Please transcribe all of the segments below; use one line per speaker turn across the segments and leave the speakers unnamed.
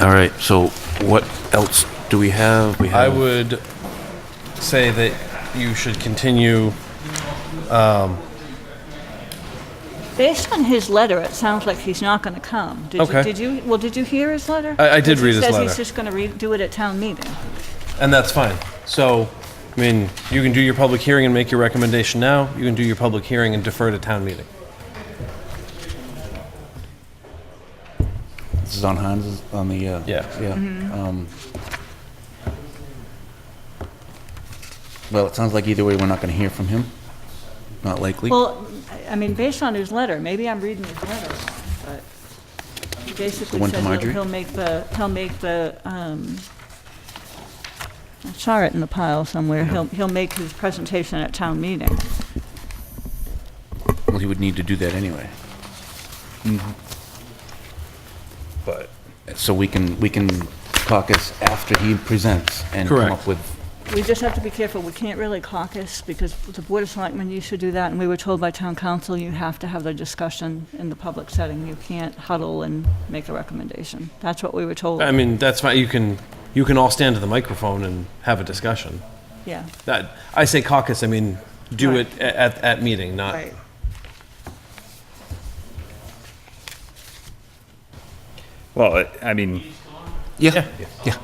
All right, so what else do we have? We
I
have
would say that you should continue.
Based on his letter, it sounds like he's not going to come. Did you-
Okay.
Did you, well, did you hear his letter?
I- I did
Because he
read his
says
letter.
he's just going to do it at town meeting.
And that's fine. So, I mean, you can do your public hearing and make your recommendation now. You can do your public hearing and defer to town meeting.
This is on Hans, on the, uh...
Yeah.
Yeah. Um, Well, it sounds like either way, we're not gonna hear from him. Not likely.
Well, I I mean, based on his letter, maybe I'm reading his letter wrong, but he basically
The one to
says he'll-
Marjorie?
he'll make the, he'll make the, um, I saw it in the pile somewhere, he'll, he'll make his presentation at town meeting.
Well, he would need to do that anyway.
Mm-hmm. But
So we can, we can caucus after he presents and come
Correct.
up with...
We just have to be careful, we can't really caucus, because the Board of Selectmen used to do that, and we were told by town council, you have to have the discussion in the public setting, you can't huddle and make a recommendation. That's what we were told,
I mean, that's fine. You can you can all stand to the microphone and have a discussion.
yeah.
That I say caucus. I mean, do
Right.
it a- at at meeting, not.
Well, I- I mean,
Yeah, yeah.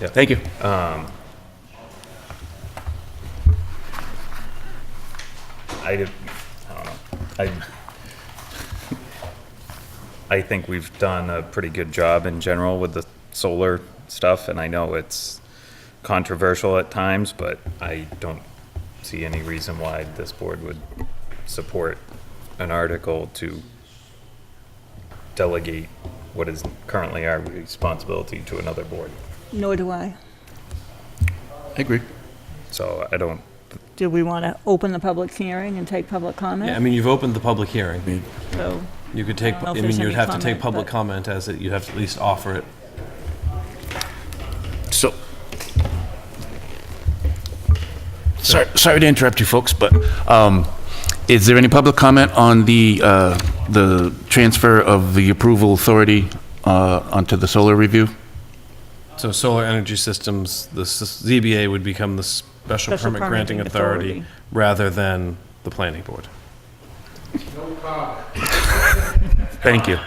Yeah.
Thank you.
I, did- I don't know. I, I think we've done a pretty good job in general with the solar stuff, and I know it's controversial at times, but I don't see any reason why this board would support an article to delegate what is currently our responsibility to another board.
Nor do I.
I agree.
So I don't,
Do we want to open the public hearing and take public
Yeah, I
comment?
mean, you've opened the public hearing.
So,
You could take,
I don't
I
know if
mean,
there's
you'd
any
have to take
comment,
public
but-
comment as it, you'd have to at least offer it.
So, sorry, sorry to interrupt you folks, but um,
Is there any public comment on the, uh, the transfer of the approval authority uh, onto the solar review?
So solar energy systems, the s- ZBA would become the special
Special
permit granting
permitting
authority
authority.
rather than the planning board. Thank you.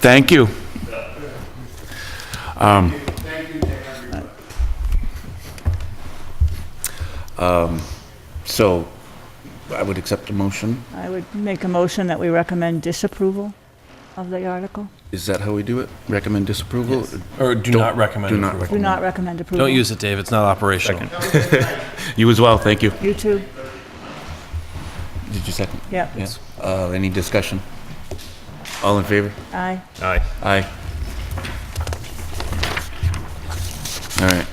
Thank you. Um, um, So I would accept a motion.
I would make a motion that we recommend disapproval of the article.
Is that how we do it? Recommend disapproval?
Or do
Don't-
not recommend.
do not
approval.
recommend.
Do not recommend approval.
Don't use it, Dave, it's not operational.
You as well, thank you.
You too,
Did you second?
yep,
Yeah. Uh, Any discussion? All in favor?
aye.
I,
Aye. All right.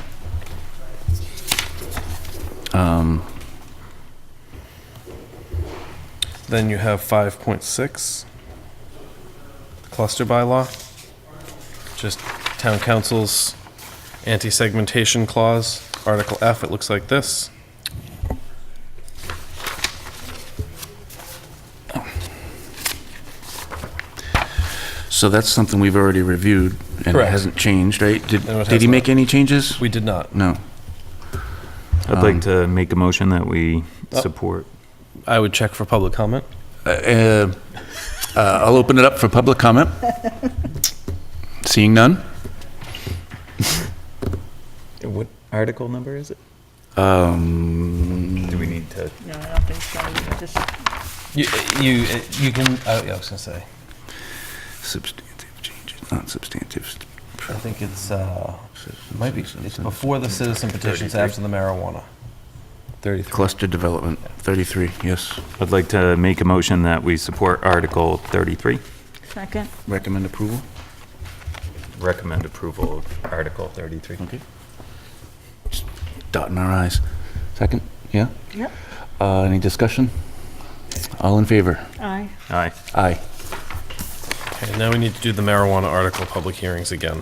Then you have 5.6, cluster bylaw, just town council's anti-segmentation clause, Article F, it looks like this.
So that's something we've already reviewed and it
Correct.
hasn't changed, right? Did
No, it
did
has
he
not.
make any changes?
We did not.
No.
I'd like to make a motion that we support.
I would check for public comment.
Uh, uh, I'll open it up for public comment. Seeing none?
What article number is it?
Um,
Do we need to?
No, I don't think so, just,
You, you, you can, uh, yeah, I was gonna say,
Substantive changes, not substantive.
I think it's, uh, might be, it's before the citizen petitions, after the marijuana. Thirty-three.
Cluster development, 33, yes.
I'd like to make a motion that we support Article 33.
second,
Recommend approval?
Recommend approval of Article 33.
Okay. Just Dotting our i's. Second, yeah?
Yep.
Uh, Any discussion? All in favor?
aye.
Aye.
Aye.
Okay, now we need to do the marijuana article public hearings again.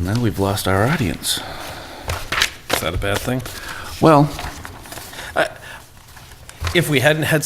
Now we've lost our audience.
Is that a bad thing?
Well,
If we hadn't had